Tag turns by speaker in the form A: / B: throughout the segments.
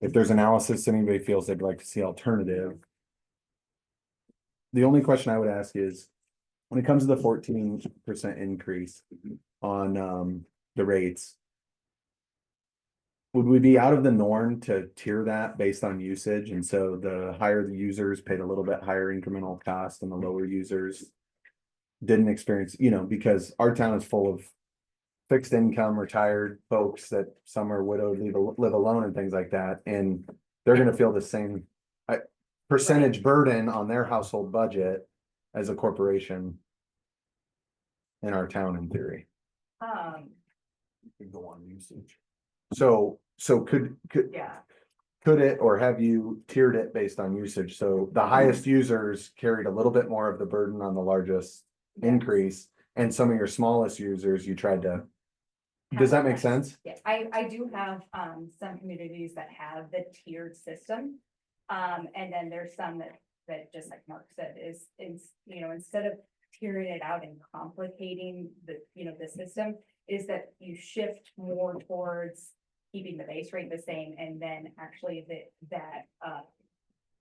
A: If there's analysis anybody feels they'd like to see alternative. The only question I would ask is, when it comes to the fourteen percent increase on um the rates. Would we be out of the norm to tier that based on usage? And so the higher the users paid a little bit higher incremental cost and the lower users. Didn't experience, you know, because our town is full of fixed income retired folks that some are widowed, leave, al- live alone and things like that, and they're gonna feel the same uh, percentage burden on their household budget as a corporation in our town in theory.
B: Um,
A: Could go on usage. So, so could, could,
B: yeah,
A: could it, or have you tiered it based on usage? So the highest users carried a little bit more of the burden on the largest
B: Yeah.
A: increase, and some of your smallest users, you tried to, does that make sense?
B: yeah, I, I do have, um, some communities that have the tiered system. Um, and then there's some that, that just like Mark said, is, is, you know, instead of tearing it out and complicating the, you know, the system. Is that you shift more towards keeping the base rate the same and then actually that, that, uh.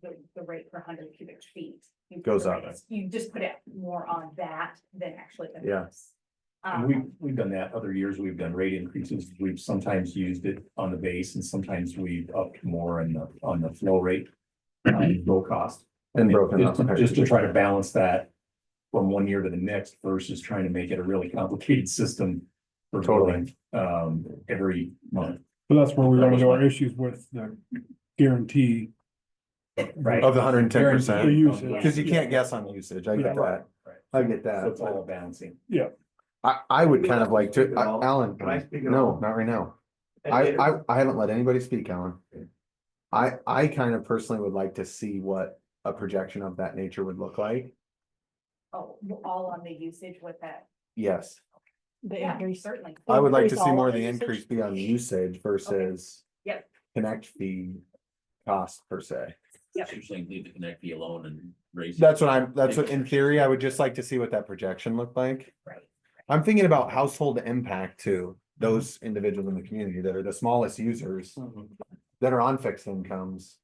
B: The, the rate per hundred cubic feet. you put
A: Goes
B: the
A: up.
B: rates- You just put it more on that than actually. the
A: Yeah.
B: base.
C: And we,
B: Um,
C: we've done that other years, we've done rate increases, we've sometimes used it on the base and sometimes we've upped more on the, on the flow rate. um, Low cost.
A: And broken up.
C: Just to- Just to try to balance that from one year to the next versus trying to make it a really complicated system. for
A: Totally.
C: Um, every month.
D: So that's where we
C: That
D: run
C: was
D: into
C: my-
D: our issues with the guarantee.
C: Right.
A: Of the hundred and ten
D: The
A: percent,
D: usage.
B: Yeah.
A: cause you can't guess on usage, I get
D: Yeah.
A: that,
C: Right.
A: I get
C: So it's all
A: that.
C: a balancing.
A: I, I would kind of like to,
E: Speak at
A: I-
E: all?
A: Alan,
E: Can I speak at
A: no,
E: all?
A: not right now, I, I, I haven't let anybody speak, Alan. I, I kind of personally would like to see what a projection of that nature would look like,
B: oh, all on the usage with that.
A: yes.
F: The
B: Yeah,
F: increase.
B: Certainly.
A: I would like to
F: Increase
A: see
F: all
A: more of
F: the
A: the
F: usage?
A: increase be on usage versus.
B: Yep.
A: Connect fee cost per se,
B: Yep.
E: Usually leave the connect fee alone and raise.
A: that's what I'm, that's what, in theory, I would just like to see what that projection looked like.
B: Right.
A: I'm thinking about household impact to
C: Mm-hmm.
A: those individuals in the community that are the smallest users
C: Mm.
A: that are on fixed incomes.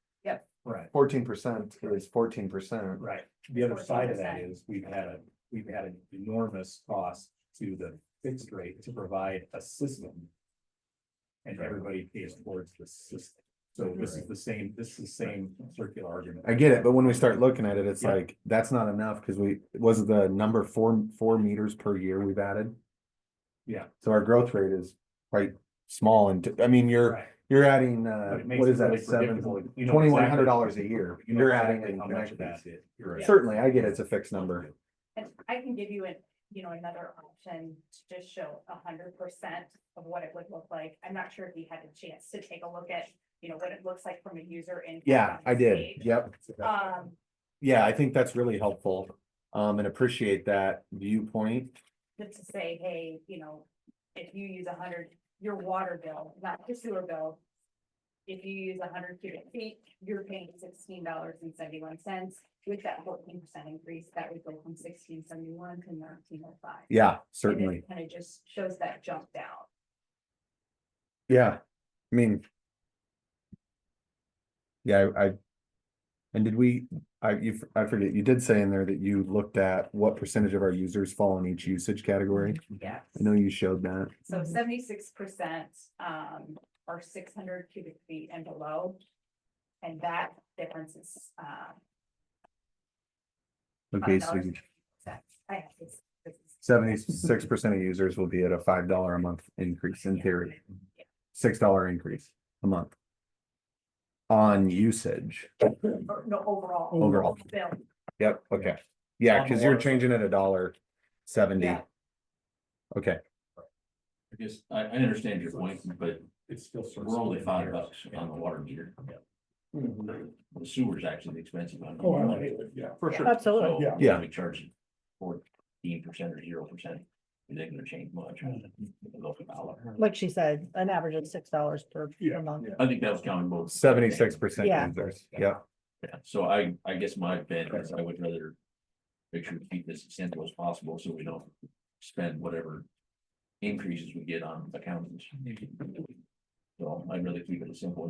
C: Right.
A: Fourteen percent is fourteen percent.
C: Right, the other side of that is we've had a, we've had an enormous cost to the fixed rate to provide a system. And everybody pays towards the system, so this is the same, this is the same circular argument.
A: I get it, but when we start looking at it, it's
C: Yeah.
A: like, that's not enough, because we, was the number four, four meters per year we've added?
C: Yeah.
A: So our growth rate is quite small and, I mean, you're,
C: Right.
A: you're adding,
C: But
A: uh,
C: it makes
A: what
C: it
A: is that,
C: really
A: seven,
C: predictable. You know
A: twenty-one hundred
C: exactly-
A: dollars a year,
C: you know
A: you're adding.
C: exactly
A: in
C: How much
A: connection
C: of that
A: fees.
C: is. You're right.
A: Certainly, I get it's a fixed number,
B: And I can give you an, you know, another option to just show a hundred percent of what it would look like. I'm not sure if you had a chance to take a look at, you know, what it looks like from a user in.
A: yeah, I did, yep.
B: Um,
A: Yeah, I think that's really helpful, um, and appreciate that viewpoint.
B: just to say, hey, you know, if you use a hundred, your water bill, not your sewer bill. If you use a hundred cubic feet, you're paying sixteen dollars and seventy-one cents. With that fourteen percent increase, that would go from sixteen seventy-one to nineteen oh five.
A: Yeah, certainly,
B: Kind of just shows that jump down.
A: yeah, I mean. Yeah, I, I- and did we, I, you, f- I forget, you did say in there that you looked at what percentage of our users fall in each usage category.
B: Yeah.
A: Mm-hmm. I know you showed that,
B: So seventy-six percent um are six hundred cubic feet and below. And that difference is uh.
A: okay, so
B: $5. I have this- this is-
A: seventy-six percent of users will be at a five dollar a month increase in theory. Six dollar increase a month. On usage.
B: or No, overall.
A: Overall.
B: Bill,
A: Yep, okay. Yeah,
C: On the
A: because you're
C: water.
A: changing it a dollar seventy.
B: Yeah.
A: Okay,
E: I guess, I, I understand your point, but
C: It's still. sort of
E: we're only
C: split
E: five
C: hairs.
E: bucks on the water meter.
C: Yeah. Mm-hmm.
E: The sewer's actually expensive on.
D: Oh, I hate it, yeah, for sure.
F: Absolutely.
E: So,
D: Yeah.
A: Yeah.
E: We charge fourteen percent or zero percent, it ain't gonna change much.
D: Mm-hmm.
E: It'll go for a dollar.
F: Like she said, an average of six dollars per
D: Yeah.
F: per month.
E: I think that was counting both.
A: seventy-six percent
F: Yeah.
A: users, yep,
E: Yeah, so I, I guess my bent is I would rather make sure we keep this as simple as possible, so we don't spend whatever increases we get on accountants. So I'd rather keep it as simple as